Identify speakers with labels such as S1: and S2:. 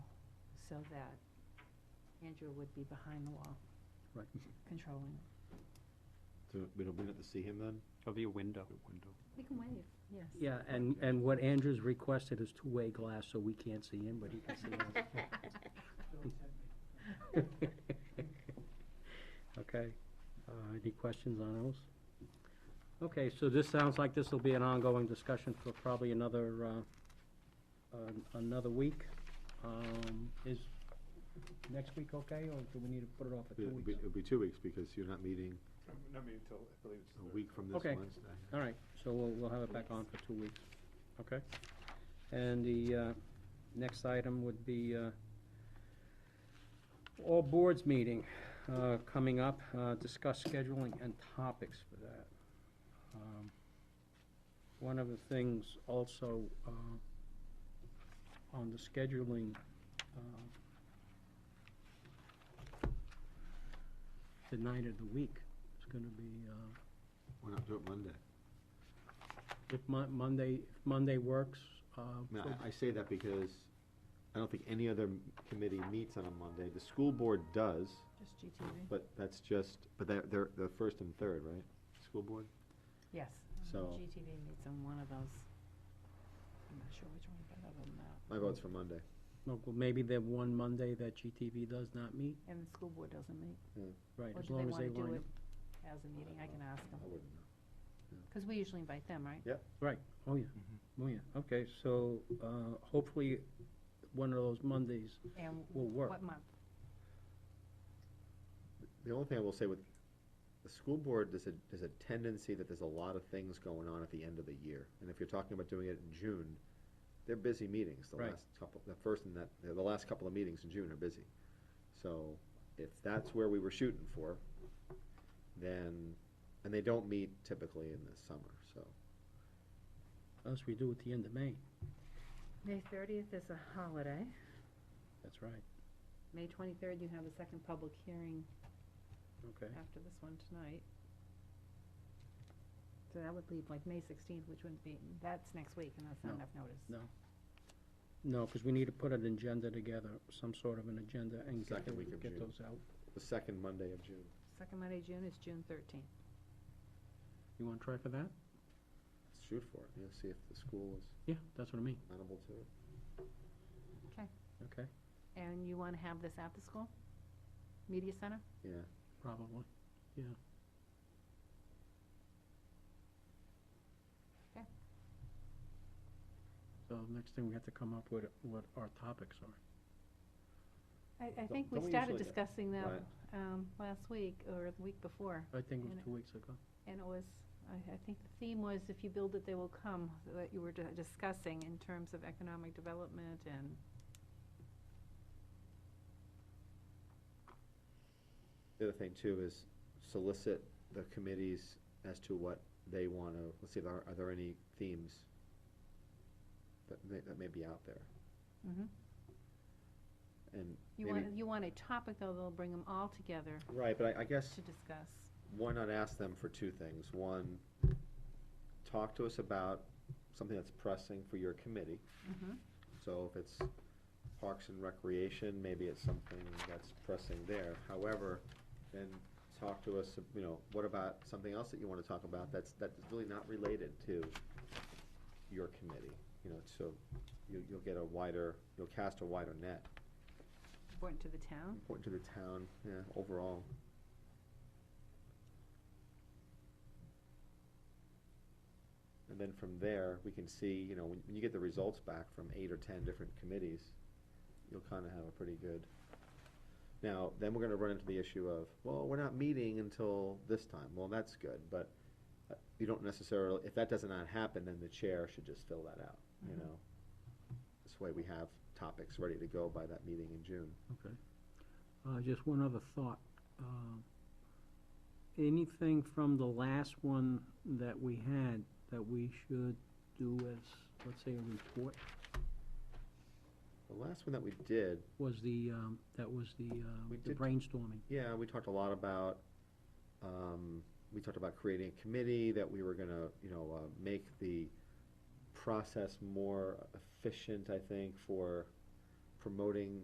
S1: so that Andrew would be behind the wall.
S2: Right.
S1: Controlling. it.
S3: So we don't, we don't have to see him then?
S4: There'll be a window.
S1: We can wave, yes.
S2: Yeah, and, and what Andrew's requested is two-way glass, so we can't see him, but he can see us. Okay, uh, any questions on those? Okay, so this sounds like this will be an ongoing discussion for probably another, uh, an- another week. Um, is next week okay, or do we need to put it off for two
S3: It'll be,
S2: weeks?
S3: it'll be two weeks because you're not meeting
S5: Not meeting until, I believe it's.
S3: a week from this
S2: Okay.
S3: Wednesday.
S2: All right, so we'll, we'll have it back on for two weeks, okay? And the, uh, next item would be, uh, all boards meeting, uh, coming up, uh, discuss scheduling and topics for that. Um, One of the things also, uh, on the scheduling, uh, the night of the week is gonna be, uh,
S3: We're not doing Monday.
S2: if Mon- Monday, if Monday works, uh,
S3: I mean,
S2: for-
S3: I, I say that because I don't think any other committee meets on a Monday. The school board does,
S1: Just GTV.
S3: but that's just, but they're, they're, the first and third, right? School board?
S1: Yes.
S3: So-
S1: GTV meets on one of those. I'm not sure which one, but other than that.
S3: My vote's for Monday.
S2: well, maybe the one Monday that GTV does not meet,
S1: And the school board doesn't meet.
S2: right,
S1: Or
S2: as
S1: do they
S2: long as
S1: want
S2: they
S1: to do
S2: line up.
S1: it as a meeting? I can ask them.
S3: I wouldn't know.
S1: Because we usually invite them, right?
S2: Oh, yeah,
S3: Mm-hmm.
S2: oh, yeah, okay, so, uh, hopefully, one of those Mondays
S1: And
S2: will work.
S1: what month?
S3: The only thing I will say with the school board, there's a, there's a tendency that there's a lot of things going on at the end of the year. And if you're talking about doing it in June, they're busy meetings, the
S2: Right.
S3: last couple, the first and that, the last couple of meetings in June are busy. So if that's where we were shooting for, then, and they don't meet typically in the summer, so.
S2: Unless we do it the end of May,
S1: May thirtieth is a holiday.
S2: that's right,
S1: May twenty-third, you have a second public hearing
S2: okay.
S1: after this one tonight. So that would leave like May sixteenth, which wouldn't be, that's next week, and that's not
S2: No.
S1: enough notice.
S2: No. No, because we need to put an agenda together, some sort of an agenda, and get
S3: Second
S2: those-
S3: week of
S2: get
S3: June.
S2: those out.
S3: The second Monday of June.
S1: Second Monday, of June is June thirteenth.
S2: You want to try for that?
S3: Let's shoot for it, you know, see if the school is
S2: Yeah, that's what I mean,
S3: amenable to it.
S2: okay,
S1: And you want to have this at the school? Media center?
S3: Yeah,
S2: probably, yeah.
S1: Okay.
S2: So next thing, we have to come up with what our topics are.
S1: I, I
S3: Don't-
S1: think we
S3: don't we
S1: started
S3: usually-
S1: discussing that,
S3: right.
S1: um, last week or the week before.
S2: I think it was
S1: And-
S2: two weeks ago.
S1: And it was, I, I think the theme was if you build it, they will come, that you were di- discussing in terms of economic development and,
S3: The other thing too is solicit the committees as to what they want to, let's see, if there are, are there any themes that may, that may be out there?
S1: Mhm.
S3: And
S1: You
S3: maybe,
S1: want, you want a topic, though, they'll bring them all together
S3: right, but I, I guess,
S1: to discuss.
S3: why not ask them for two things? One, talk to us about something that's pressing for your committee.
S1: Mhm.
S3: So if it's Parks and Recreation, maybe it's something that's pressing there. However, then talk to us, you know, what about something else that you wanna talk about that's, that's really not related to your committee? You know, so you, you'll get a wider, you'll cast a wider net,
S1: Important to the town.
S3: important to the town, yeah, overall. And then from there, we can see, you know, when, when you get the results back from eight or ten different committees, you'll kinda have a pretty good. Now, then we're gonna run into the issue of, well, we're not meeting until this time, well, that's good, but uh, you don't necessarily, if that does not happen, then the chair should just fill that out, you
S1: Mhm.
S3: know? This way we have topics ready to go by that meeting in June.
S2: Okay. Uh, just one other thought. Um, Anything from the last one that we had that we should do as, let's say, a report,
S3: The last one that we did,
S2: was the, um, that was the, uh,
S3: We
S2: the
S3: did-
S2: brainstorming.
S3: yeah, we talked a lot about, um, we talked about creating a committee that we were gonna, you know, uh, make the process more efficient, I think, for promoting